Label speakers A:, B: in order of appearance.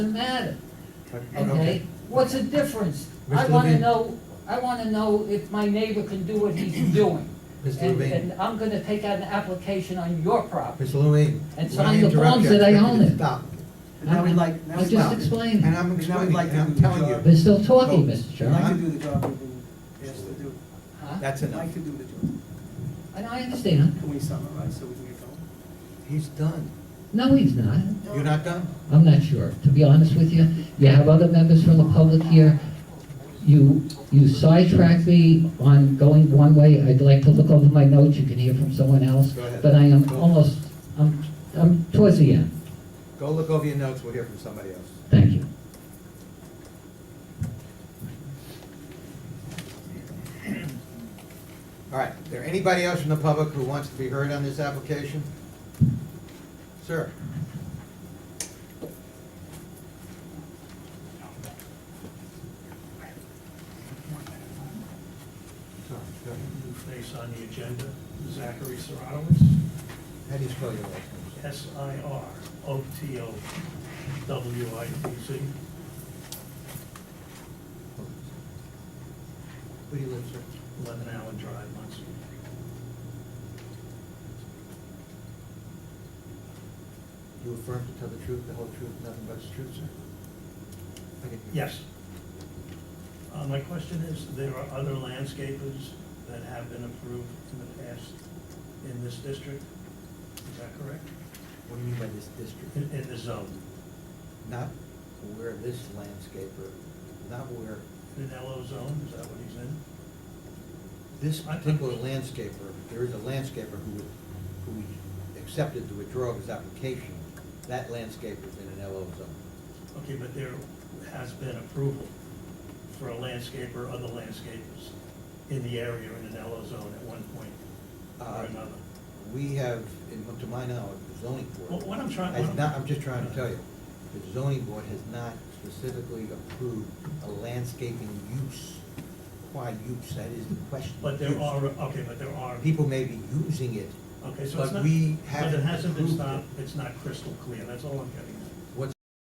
A: Doesn't matter,
B: Okay.
A: okay? What's the difference? I
B: Mr.
A: wanna
B: Levine.
A: know, I wanna know if my neighbor can do what he's doing.
B: Mr.
A: And,
B: Levine.
A: and I'm gonna take out an application on your property.
B: Mr. Levine.
A: And
B: let
A: sign
B: me
A: the
B: interrupt
A: forms
B: you.
A: that I own it. Mm.
B: Stop.
C: Now we'd like, now
A: I
C: we'd
A: just
C: like,
A: explained,
B: And I'm
C: And now
B: explaining,
C: we'd like
B: and I'm
C: to-
B: telling you,
A: they're still talking,
B: Oh,
A: Mr.
C: we'd
A: Chairman.
C: like to do the job we've been asked to do.
A: Huh?
B: that's
C: We'd
B: enough.
C: like to do the job.
A: And I understand,
C: Can we summarize so we can get going?
B: He's done.
A: no, he's not,
B: You're not done?
A: I'm not sure, to be honest with you. You have other members from the public here. You, you sidetrack me on going one way, I'd like to look over my notes, you can hear from someone else.
B: Go ahead.
A: But I am almost, I'm, I'm towards the end,
B: Go look over your notes, we'll hear from somebody else.
A: thank you.
B: All right, is there anybody else from the public who wants to be heard on this application? Sir? Sorry, go ahead.
D: New face on the agenda, Zachary Sironowitz,
B: How do you spell your last name?
D: S-I-R-O-T-O-W-I-T-Z,
B: Where do you live, sir?
D: 11 Allen Drive, Muncie.
B: You affirm to tell the truth, the whole truth, nothing but the truth, sir? I didn't hear.
D: Yes. Uh, My question is, there are other landscapers that have been approved in the past in this district? Is that correct?
B: What do you mean by this district?
D: In, in the zone,
B: Not where this landscaper, not where
D: in an LO zone, is that what he's in?
B: this particular landscaper, there is a landscaper who, who accepted the withdrawal of his application. That landscaper is in an LO zone.
D: Okay, but there has been approval for a landscaper, other landscapers in the area in an LO zone at one point or
B: Uh,
D: another.
B: We have, in- to my knowledge, the zoning
D: Well,
B: board.
D: what I'm trying,
B: has
D: what
B: not, I'm
D: I'm,
B: just trying to tell you, the zoning board has not specifically approved a landscaping use. Why use? That is the question.
D: but there
B: Use.
D: are, okay, but there are,
B: People may be using it,
D: okay, so
B: but
D: it's not,
B: we
D: but it
B: haven't
D: hasn't been
B: approved it.
D: stopped, it's not crystal clear, that's all I'm getting